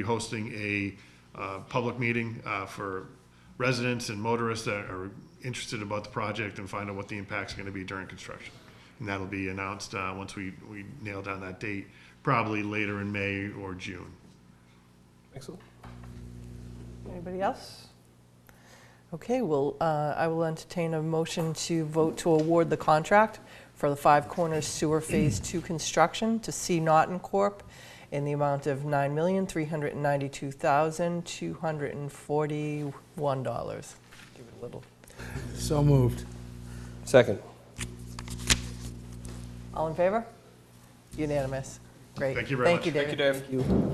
be hosting a uh, public meeting uh, for residents and motorists that are interested about the project and find out what the impact's going to be during construction. And that'll be announced uh, once we we nail down that date, probably later in May or June. Excellent. Anybody else? Okay, well, uh, I will entertain a motion to vote to award the contract for the Five Corners Sewer Phase 2 construction to C. Naughton Corp. in the amount of $9,392,241. Give it a little. So moved. Second. All in favor? Unanimous. Great. Thank you very much. Thank you, David. Dave. Um,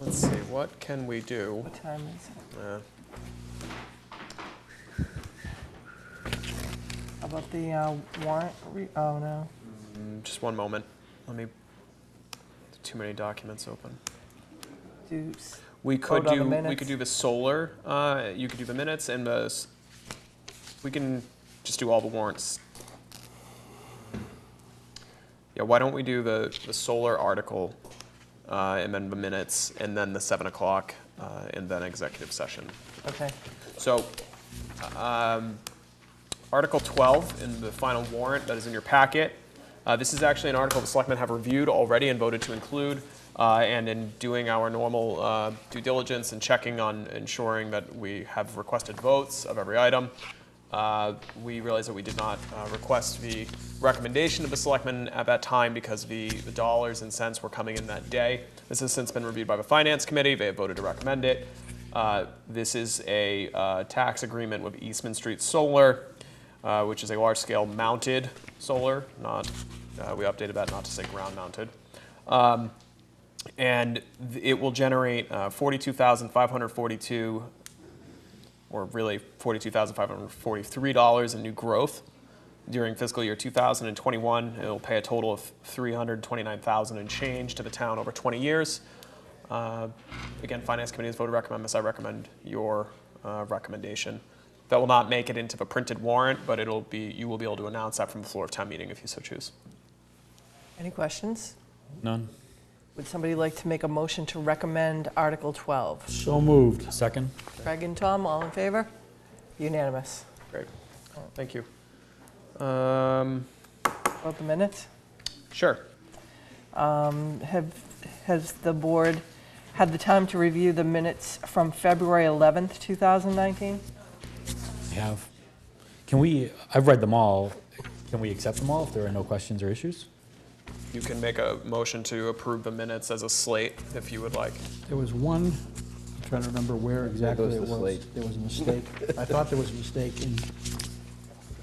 Let's see, what can we do? What time is it? Uh, How About the uh, warrant, re- oh, no. mm, Just one moment. Let me, too many documents open. Do s- We could Vote on the do, we minutes. could do the solar, uh, you could do the minutes and the, s- we can just do all the warrants. Yeah, why don't we do the, the solar article, uh, and then the minutes, and then the seven o'clock, uh, and then executive session. Okay, So, um, Article 12 in the final warrant that is in your packet. Uh, This is actually an article the selectmen have reviewed already and voted to include. uh, And in doing our normal uh, due diligence and checking on ensuring that we have requested votes of every item, uh, we realized that we did not uh, request the recommendation of the selectmen at that time because the the dollars and cents were coming in that day. This has since been reviewed by the Finance Committee. They have voted to recommend it. Uh, This is a uh, tax agreement with Eastman Street Solar, uh, which is a large-scale mounted solar, not, uh, we updated that not to say ground-mounted. Um, And th- it will generate uh, 42542 or really $42,543 in new growth during fiscal year 2021. It'll pay a total of 329,000 and change to the town over 20 years. Uh, Again, Finance Committee has voted to recommend this. I recommend your uh, recommendation. That will not make it into the printed warrant, but it'll be, you will be able to announce that from the floor of town meeting if you so choose. any questions? None. Would somebody like to make a motion to recommend Article 12? So moved. Second? Craig and Tom, all in favor? Unanimous. Great. Thank you. Um, Vote the minutes. Sure. Um, Have, has the board had the time to review the minutes from February 11th, 2019? We have. Can we, I've read them all. Can we accept them all if there are no questions or issues? You can make a motion to approve the minutes as a slate if you would like. There was one, I'm trying to remember where exactly goes it the was. slate. There was a mistake. I thought there was a mistake in,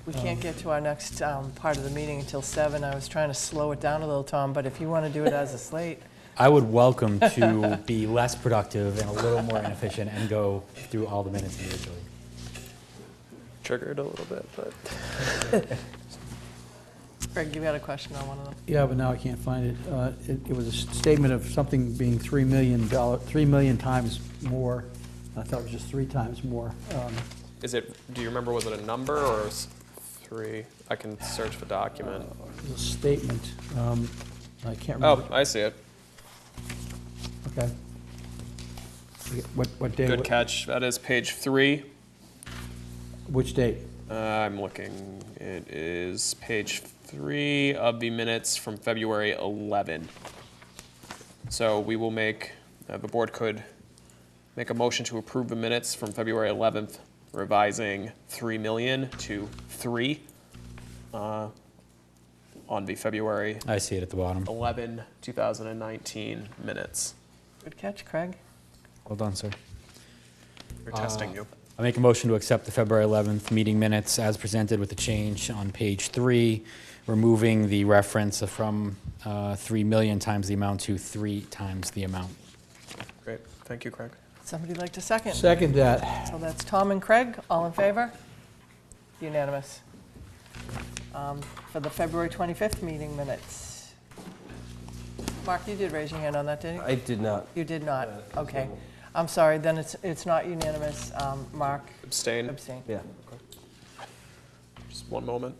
We can't get to our next um, part of the meeting until 7. I was trying to slow it down a little, Tom, but if you want to do it as a slate, I would welcome to be less productive and a little more inefficient and go through all the minutes individually. Triggered a little bit, but. Craig, you had a question on one of them. yeah, but now I can't find it. Uh, It it was a s- statement of something being $3 million, dollar- 3 million times more. I thought it was just three times more. Um, Is it, do you remember, was it a number or s- three? I can search the document. It was a statement. Um, I can't Oh, remember. I see it. Okay. Okay, What, what day? Good what- catch. That is page three. Which date? Uh, I'm looking. It is page three of the minutes from February 11. So we will make, uh, the board could make a motion to approve the minutes from February 11th, revising 3 million to 3 uh, on the February I see it at the bottom. 11, 2019 minutes. Good catch, Craig. Well done, sir. We're testing you. I make a motion to accept the February 11th meeting minutes as presented with the change on page three, removing the reference from uh, 3 million times the amount to 3 times the amount. Great. Thank you, Craig. Somebody like to second? Second that. So that's Tom and Craig, all in favor? Unanimous. Um, For the February 25th meeting minutes. Mark, you did raise your hand on that, didn't you? I did not. You did not, Uh, okay. I'm sorry, then it's, it's not unanimous. Um, Mark Abstain. abstained. Yeah. Just one moment.